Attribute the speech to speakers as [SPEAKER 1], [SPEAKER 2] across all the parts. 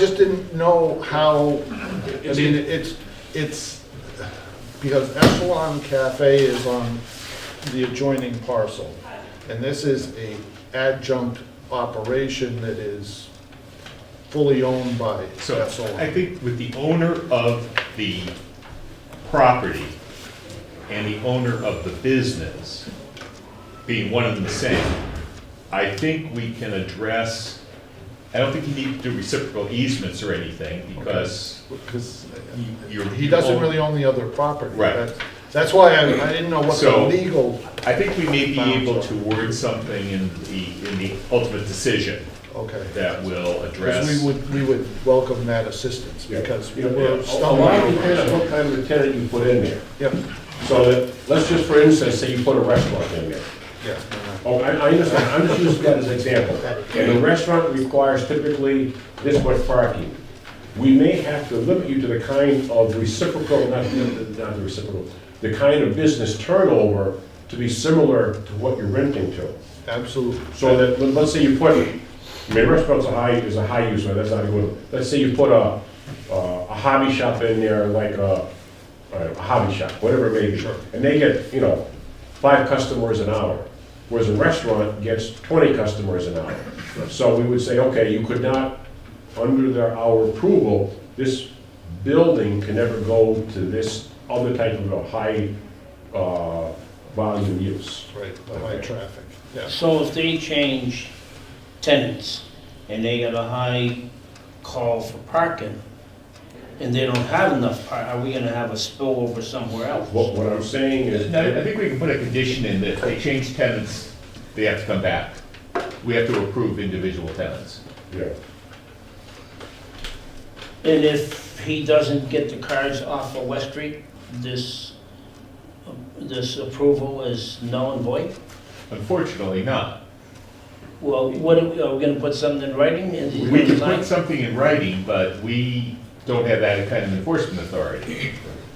[SPEAKER 1] Just didn't know how, I mean, it's, it's, because Echelon Cafe is on the adjoining parcel. And this is a adjunct operation that is fully owned by
[SPEAKER 2] So I
[SPEAKER 1] Echelon.
[SPEAKER 2] think with the owner of the property and the owner of the business being one and the same, I think we can address, I don't think you need to do reciprocal easements or anything because
[SPEAKER 1] Because
[SPEAKER 2] you
[SPEAKER 1] he doesn't really own the other property.
[SPEAKER 2] Right.
[SPEAKER 1] That's- That's why I, I didn't know what the
[SPEAKER 2] So-
[SPEAKER 1] legal,
[SPEAKER 2] I think we may be able to word something in the, in the ultimate decision
[SPEAKER 1] okay.
[SPEAKER 2] that will address.
[SPEAKER 1] Because we would, we would welcome that assistance because we
[SPEAKER 3] Yeah, Oh,
[SPEAKER 2] Oh,
[SPEAKER 1] were
[SPEAKER 3] A a lot
[SPEAKER 1] stumbling.
[SPEAKER 3] depends what kind of a tenant you put in there.
[SPEAKER 1] Yep,
[SPEAKER 3] So that, let's just for instance, say you put a restaurant in there.
[SPEAKER 1] yeah.
[SPEAKER 3] Oh, I, I understand, I'm just using that as an example. And the restaurant requires typically this much parking. We may have to limit you to the kind of reciprocal, not, not the reciprocal, the kind of business turnover to be similar to what you're renting to.
[SPEAKER 1] Absolutely.
[SPEAKER 3] So that, let- let's say you put, I mean, restaurants are high, is a high use, so that's not a good, one. let's say you put a, a hobby shop in there, like a, a hobby shop, whatever it may be. And they get, you know, five customers an hour, whereas a restaurant gets twenty customers an hour. So we would say, okay, you could not, under their, our approval, this building can never go to this other type of a high, uh, volume use.
[SPEAKER 1] Right, the high traffic, yeah.
[SPEAKER 4] So if they change tenants and they got a high call for parking and they don't have enough, par- are we gonna have a spillover somewhere else?
[SPEAKER 3] What, what I'm saying is.
[SPEAKER 2] No, I think we can put a condition in that if they change tenants, they have to come back. We have to approve individual tenants.
[SPEAKER 3] Yeah,
[SPEAKER 4] And if he doesn't get the cars off of West Street, this, this approval is null and void?
[SPEAKER 2] Unfortunately not.
[SPEAKER 4] Well, what, are we are we gonna put something in writing? Is he
[SPEAKER 2] We can
[SPEAKER 4] gonna
[SPEAKER 2] put
[SPEAKER 4] sign?
[SPEAKER 2] something in writing, but we don't have that kind of enforcement authority.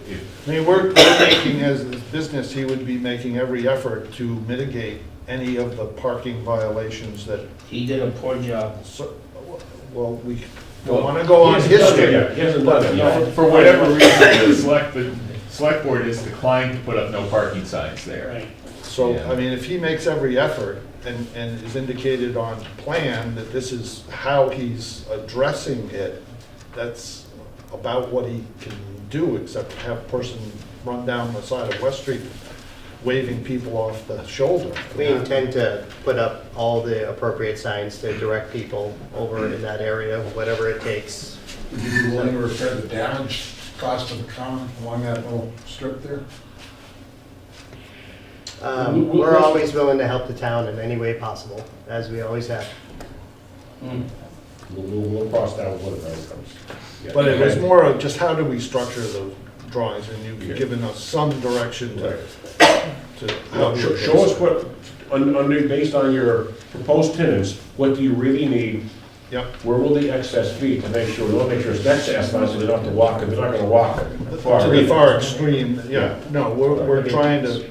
[SPEAKER 2] If-
[SPEAKER 1] I mean, we're, we're making, as this business, he would be making every effort to mitigate any of the parking violations that,
[SPEAKER 4] He did a poor job.
[SPEAKER 1] so- well, we don't want to go on history.
[SPEAKER 3] Yeah, he hasn't done it yet.
[SPEAKER 2] For whatever reason, the select, the select board has declined to put up no parking signs there.
[SPEAKER 4] Right.
[SPEAKER 1] So,
[SPEAKER 2] Yeah.
[SPEAKER 1] I mean, if he makes every effort and, and is indicated on plan that this is how he's addressing it, that's about what he can do, except have a person run down the side of West Street waving people off the shoulder.
[SPEAKER 5] We intend to put up all the appropriate signs to direct people over in that area, whatever it takes.
[SPEAKER 6] Would you be willing to repair the damage cost of the common along that little strip there?
[SPEAKER 5] Um, We're always willing to help the town in any way possible, as we always have.
[SPEAKER 3] We'll, we'll- we'll cross that one when it comes. Yeah.
[SPEAKER 1] But it was more of just how do we structure those drawings, and you've given us some direction to, to. how
[SPEAKER 3] Now,
[SPEAKER 1] we
[SPEAKER 3] Show
[SPEAKER 1] approach
[SPEAKER 3] show us
[SPEAKER 1] that.
[SPEAKER 3] what, un- under, based on your proposed tenants, what do you really need?
[SPEAKER 1] Yep,
[SPEAKER 3] Where will the excess be to make sure, we'll make sure it's excess, not so they don't have to walk it, they're not gonna walk it.
[SPEAKER 1] to the far extreme, yeah, no, we're, we're trying to,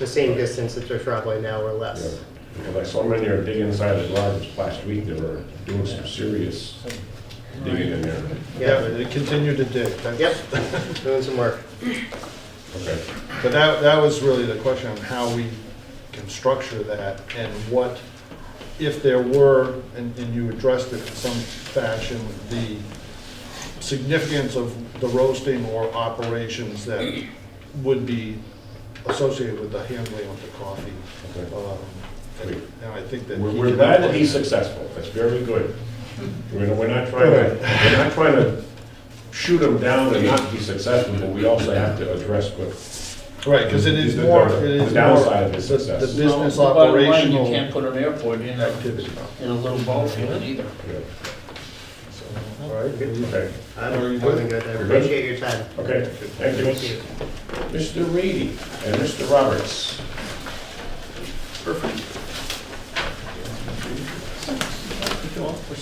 [SPEAKER 5] The same distance that they're traveling now or less.
[SPEAKER 3] Because I saw them in there digging inside the garage last week, they were doing some serious digging in there.
[SPEAKER 1] yeah,
[SPEAKER 5] Yeah,
[SPEAKER 1] to continue to dig. that's-
[SPEAKER 5] yep, doing some work.
[SPEAKER 3] Okay.
[SPEAKER 1] But that, that was really the question on how we can structure that and what, if there were, and, and you addressed it in some fashion, the significance of the roasting or operations that would be associated with the handling of the coffee.
[SPEAKER 3] Okay.
[SPEAKER 1] Um, And and I think that.
[SPEAKER 3] We're,
[SPEAKER 1] he
[SPEAKER 3] we're
[SPEAKER 1] can
[SPEAKER 3] glad that
[SPEAKER 1] apply
[SPEAKER 3] he's
[SPEAKER 1] that.
[SPEAKER 3] successful, that's very good. We're, not- we're not trying to, we're not trying to shoot him down and not be successful, but we also have to address what.
[SPEAKER 1] Right, because it is
[SPEAKER 3] The-
[SPEAKER 1] more,
[SPEAKER 3] the-
[SPEAKER 1] it is more.
[SPEAKER 3] the downside of his
[SPEAKER 1] the-
[SPEAKER 3] success.
[SPEAKER 1] The business
[SPEAKER 4] Well, bottom line, You
[SPEAKER 1] operational
[SPEAKER 4] can't put an airport in a,
[SPEAKER 1] activity.
[SPEAKER 4] in a little ball field either.
[SPEAKER 3] yeah.
[SPEAKER 1] All right,
[SPEAKER 3] Okay,
[SPEAKER 5] I'm
[SPEAKER 1] Are you
[SPEAKER 5] I'm
[SPEAKER 1] good?
[SPEAKER 5] good, I appreciate your time.
[SPEAKER 3] okay, thank
[SPEAKER 5] Thank
[SPEAKER 3] you.
[SPEAKER 5] you.
[SPEAKER 3] Mr. Reedy and Mr. Roberts.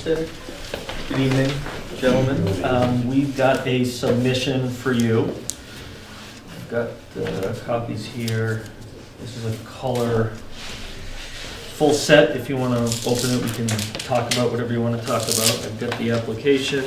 [SPEAKER 7] Good evening, gentlemen. Um, We've got a submission for you. I've got uh, copies here. This is a color full set. If you want to open it, we can talk about whatever you want to talk about. I've got the application,